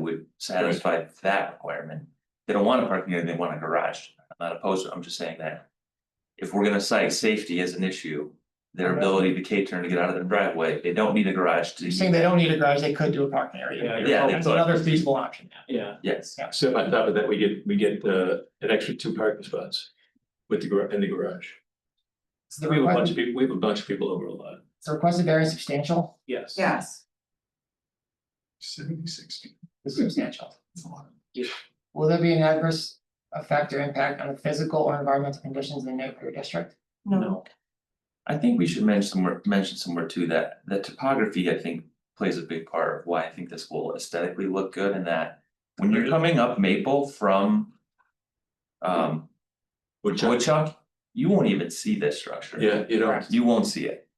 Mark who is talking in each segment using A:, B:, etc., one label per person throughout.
A: would satisfy that requirement. They don't want a parking area, they want a garage, I'm not opposed, to it, I'm just saying that. If we're gonna cite safety as an issue, their ability to K-turn to get out of their driveway, they don't need a garage
B: You're
A: to,
B: saying they don't need a garage, they could do a parking
C: Yeah,
B: area.
C: you're
A: Yeah, they
B: That's
A: could.
B: another feasible option, yeah.
C: Yeah,
A: yes.
D: So on top of that, we get, we get uh an extra two parking spots with the gar- in the garage.
B: Is the
D: We have a bunch
B: request,
D: of people, we have a bunch of people over a lot.
B: is the request very substantial?
C: yes.
E: Yes.
D: Seventy-six.
B: It's substantial.
D: a lot.
B: Will there be an adverse effect or impact on the physical or environmental conditions in the neighborhood or district?
E: No.
A: I think we should mention somewhere, mention somewhere too, that that topography, I think, plays a big part of why I think this will aesthetically look good and that. When you're coming up Maple from. Um,
D: Which, I-
A: Woodchuck, you won't even see this structure.
D: yeah, you know,
B: Correct.
A: You won't see it,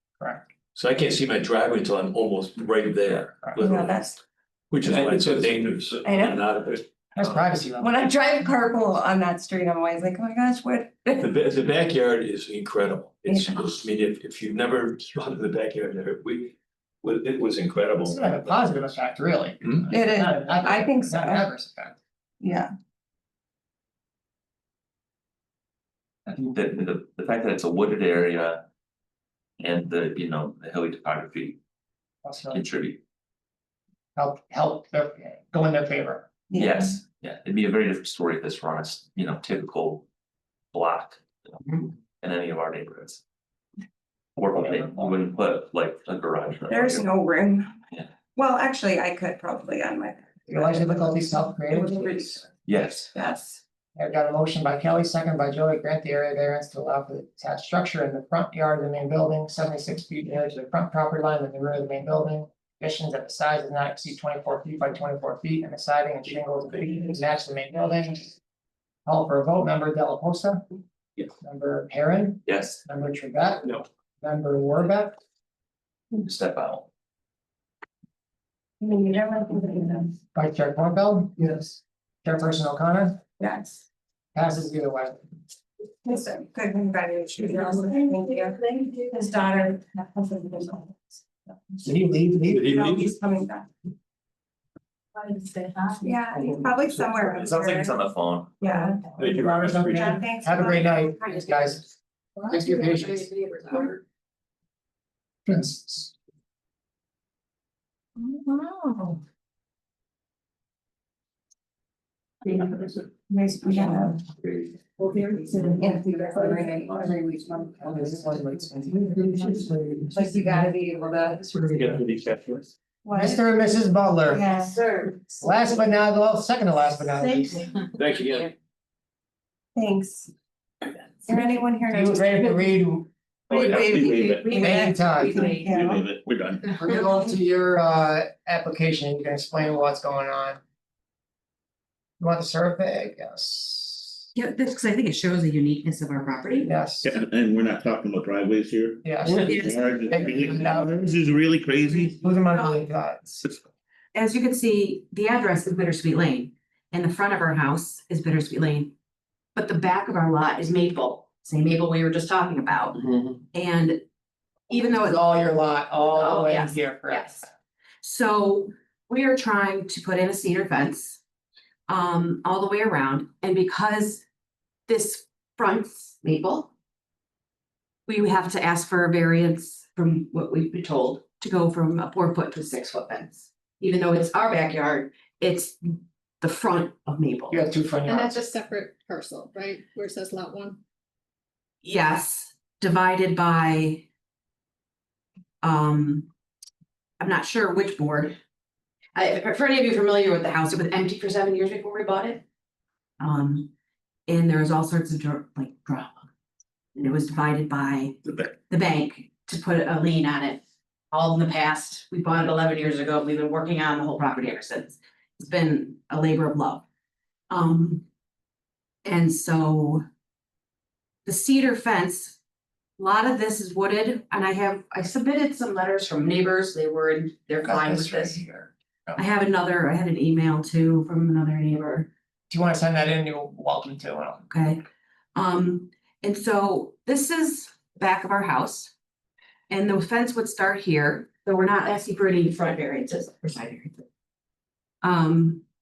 D: so I can't see my driveway until I'm almost right there,
E: No,
D: literally,
E: that's,
D: which is why it's so dangerous.
E: I know.
D: Not of it.
B: That's privacy level.
E: when I drive carpool on that street, I'm always like, oh my gosh, what?
D: The ba- the backyard is incredible. It's,
E: Yeah.
D: I mean, if if you've never gone to the backyard there, we, well, it was incredible.
B: It's not a positive effect, really.
D: Hmm?
E: It is,
B: Not an adverse-
E: I think so.
B: Not an adverse effect.
E: yeah,
A: I think that the the fact that it's a wooded area. And the, you know, the hilly topography
B: Also,
A: contribute,
B: help, help, their- go in their favor.
E: yeah.
A: yes, yeah, it'd be a very different story if this were on a, s- you know, typical. Block.
E: Mm-hmm.
B: Mhm.
A: In any of our neighborhoods. Or
B: Yeah.
A: they wouldn't put like a garage. or-
E: There's no room.
A: Yeah.
E: Well, actually, I could probably on my,
B: Your life difficulties
E: it
B: self-created.
E: was ridiculous.
A: Yes,
E: Yes,
B: I've got a motion by Kelly, second by Joey, grant the area variance to allow for the attached structure in the front yard of the main building, seventy-six feet near to the front property line with the rear of the main building. Conditions that the size does not exceed twenty-four feet by twenty-four feet and the siding and shingles to match the main building. Call for a vote, member Delaposa.
C: Yes.
B: Member Perrin,
A: yes,
B: member Trevette.
C: No.
B: Member Warbeck,
A: step out.
E: I mean, you don't want to do that.
B: Vice Chair Cornfeld. Yes. Chairperson O'Connor,
E: yes.
B: passes either way.
E: Yes, sir. good congratulations. Thank you. His daughter. her husband, his daughter.
B: Did he leave? Leave?
D: Did he
E: No,
D: leave?
E: he's coming back. Yeah, he's probably somewhere.
A: It sounds like it's on the phone.
E: Yeah.
D: Thank you.
B: Robert, something?
E: Yeah, thanks.
B: Have a great night, thanks, guys. Thanks for your patience. Prince.
E: Wow. Nice, we got a- Well, there is an empty referendum every week. Like you gotta be able to. What?
B: Mr. and Mrs. Butler,
E: Yes, sir.
B: last but not, well, second to last but not least.
D: Thanks again.
E: Thanks. Is there anyone here?
B: You were ready to read,
D: Oh, yeah, we leave it.
E: We
B: Thank you, Todd.
D: We leave it. We're done.
B: we're gonna go to your uh application, you can explain what's going on. You want the survey, yes,
F: Yeah, that's because I think it shows the uniqueness of our property.
B: yes,
G: Yeah, and- and we're not talking about driveways here.
B: yes.
F: Yes.
G: This is really crazy.
B: Losing my mind, God.
F: As you can see, the address is Bittersweet Lane, and the front of our house is Bittersweet Lane. But the back of our lot is Maple, same Maple we were just talking about,
B: Mm-hmm.
F: and even though
B: It's
F: it's
B: all your lot, all the
F: Oh,
B: way
F: yes,
B: here, correct?
F: Yes. So we are trying to put in a cedar fence um all the way around and because this fronts Maple. We have to ask for a variance from what we've been told to go from a four foot to a six foot fence. Even though it's our backyard, it's the front of Maple.
B: You have two front
H: And
B: yards,
H: that's just separate parcel, right, where it says lot one?
F: Yes, divided by. Um. I'm not sure which board. I, for any of you familiar with the house, it was empty for seven years before we bought it. Um, and there was all sorts of dr- like drama. And it was divided by
G: The back.
F: the bank to put a lien on it. All in the past, we bought it eleven years ago, we've been working on the whole property ever since. It's been a labor of love. Um. And so. The cedar fence, a lot of this is wooded, and I have, I submitted some letters from neighbors, they were, in- they're
B: Got
F: fine with
B: this right
F: this.
B: here.
F: I have another, I had an email too from another neighbor.
B: If you wanna send that in, you're welcome to, Well,
F: Okay, um, and so this is back of our house. And the fence would start here, though we're not asking for any front variances or side variances. Um,